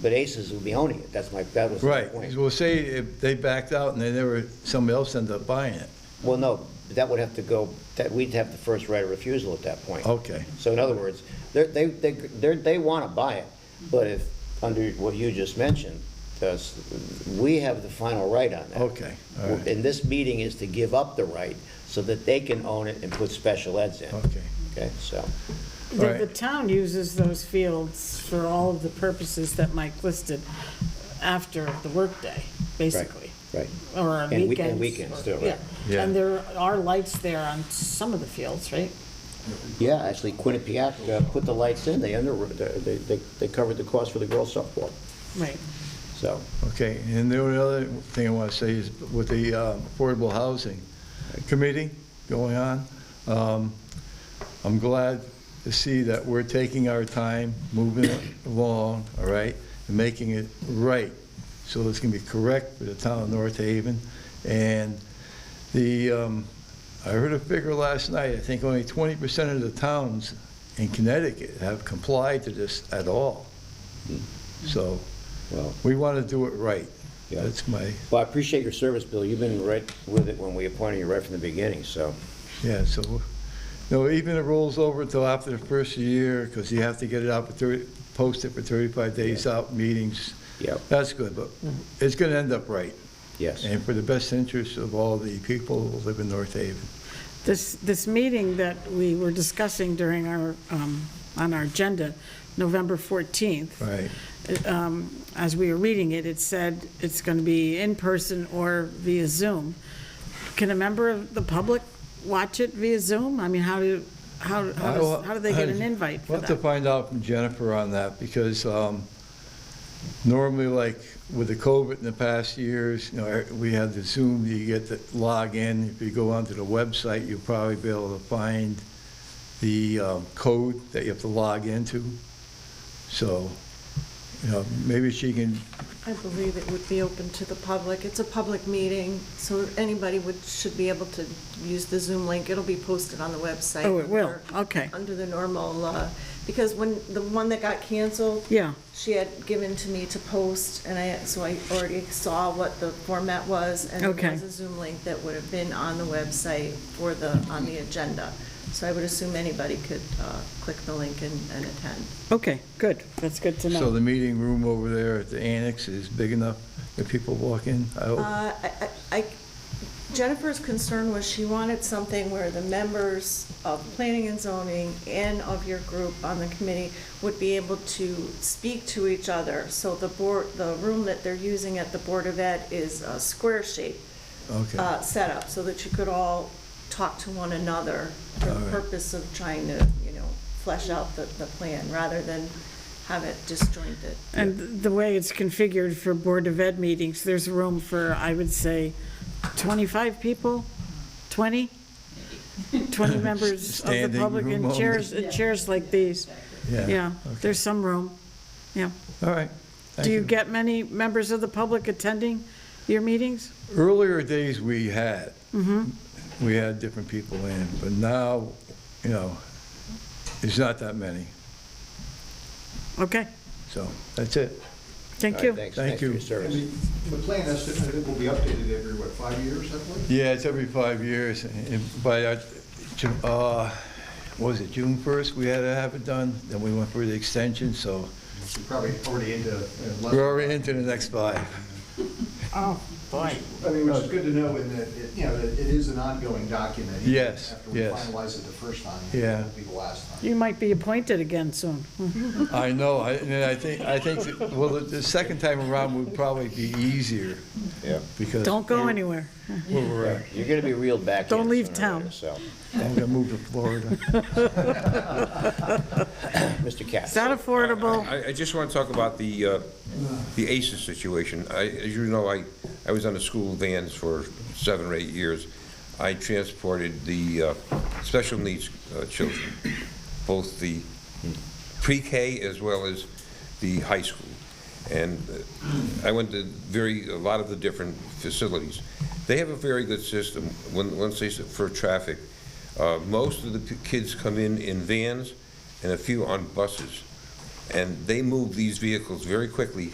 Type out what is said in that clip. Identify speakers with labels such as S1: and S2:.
S1: but Aces would be owning it, that's my, that was my
S2: Right,
S1: point.
S2: well, say if they backed out and they never, somebody else ended up buying it,
S1: Well, no, but that would have to go, that, we'd have the first right of refusal at that point.
S2: okay.
S1: So in other words, they're, they, they, they're, they want to buy it, but if, under what you just mentioned, does, we have the final right on that.
S2: Okay, all right.
S1: And this meeting is to give up the right so that they can own it and put special eds in.
S2: Okay.
S1: Okay, so,
S2: All
S3: The,
S2: right.
S3: the town uses those fields for all of the purposes that Mike listed after the workday, basically.
S1: right.
S3: Or on
S1: And
S3: weekends.
S1: week- and weekends
S3: or-
S1: too, right.
S3: yeah.
S2: Yeah.
S3: And there are lights there on some of the fields, right?
S1: Yeah, actually Quinnipiac uh, put the lights in, they under, they, they they covered the cost for the girls softball,
S3: Right.
S1: so.
S2: Okay, and the only other thing I want to say is with the uh, Affordable Housing Committee going on, um, I'm glad to see that we're taking our time, moving it along, all right, and making it right. So it's going to be correct for the town of North Haven. And the, um, I heard a figure last night, I think only 20% of the towns in Connecticut have complied to this at all. So
S1: Well,
S2: we want to do it right.
S1: Yeah.
S2: That's my,
S1: Well, I appreciate your service, Bill, you've been right with it when we appointed you right from the beginning, so.
S2: yeah, so, no, even it rolls over until after the first year, because you have to get it out for 30, post it for 35 days out, meetings.
S1: Yep.
S2: That's good, but it's going to end up right,
S1: Yes.
S2: and for the best interest of all the people who live in North Haven.
S3: This, this meeting that we were discussing during our, um, on our agenda, November 14th.
S2: Right,
S3: um, as we were reading it, it said it's going to be in person or via Zoom. Can a member of the public watch it via Zoom? I mean, how do, how, how does- how do they get an invite for
S2: We'll have to
S3: that?
S2: find out from Jennifer on that, because um, normally, like with the COVID in the past years, you know, er, we had the Zoom, you get to log in. If you go onto the website, you'll probably be able to find the um, code that you have to log into. So, you know, maybe she can,
S4: I believe it would be open to the public. It's a public meeting, so anybody would, should be able to use the Zoom link. It'll be posted on the website.
S3: Oh, it will,
S4: under-
S3: okay,
S4: Under the normal, uh, because when, the one that got canceled,
S3: yeah,
S4: she had given to me to post, and I, so I already saw what the format was. And
S3: Okay.
S4: there was a Zoom link that would have been on the website for the, on the agenda. So I would assume anybody could uh, click the link and and attend.
S3: okay, good, that's good to
S2: so
S3: know.
S2: the meeting room over there at the annex is big enough that people walk in? I hope.
S4: Uh, I- I, I- Jennifer's concern was she wanted something where the members of planning and zoning and of your group on the committee would be able to speak to each other. So the board, the room that they're using at the Board of Ed is a square shape
S2: Okay,
S4: uh, setup so that you could all talk to one another for
S2: All right.
S4: the purpose of trying to, you know, flesh out the, the plan rather than have it disjointed.
S3: And the way it's configured for Board of Ed meetings, there's room for, I would say, 25 people, 20? 20 members of the
S2: Standing
S3: public
S2: room
S3: in
S2: only.
S3: chairs, in chairs like these.
S2: yeah,
S3: Yeah, there's some room, yeah.
S2: all right. Thank
S3: Do you get many members of the public attending your meetings?
S2: Earlier days we had, we had different people in, but now, you know, it's not that many.
S3: Okay,
S2: So that's it.
S3: thank
S1: All right,
S3: you.
S1: Thanks, thanks
S2: Thank
S1: for your
S2: you.
S5: And
S1: service.
S5: the, the plan is, that it will be updated every, what, five years, I believe?
S2: Yeah, it's every five years. And By, our- Ju- uh, what was it June 1st? We had to have it done, then we went for the extension, so
S5: You're Probably already into. uh, less-
S2: we're already into the next five.
S3: Oh, boy.
S5: I mean, which is good to know in that, it- you know, that it is an ongoing document. even
S2: Yes,
S5: After we
S2: yes.
S5: finalize it the first time.
S2: Yeah.
S5: It will be the last time.
S3: You might be appointed again soon.
S2: I know, I- and I think, I think, that- well, the- the second time around would probably be easier
S1: Yeah.
S2: because
S3: Don't go anywhere.
S2: we're,
S1: You're going to be reeled back in.
S3: Don't leave
S1: sooner or
S3: town.
S1: later, So,
S2: I'm gonna move to Florida.
S1: Mr. Katz.
S3: Is that affordable?
S6: I, I just want to talk about the, uh, the ACES situation. I, as you know, I, I was on the school vans for seven or eight years. I transported the uh, special needs uh, children, both the pre-K as well as the high school. And uh, I went to very, a lot of the different facilities. They have a very good system, when, once they, s- for traffic. Uh, Most of the p- kids come in in vans and a few on buses. And they move these vehicles very quickly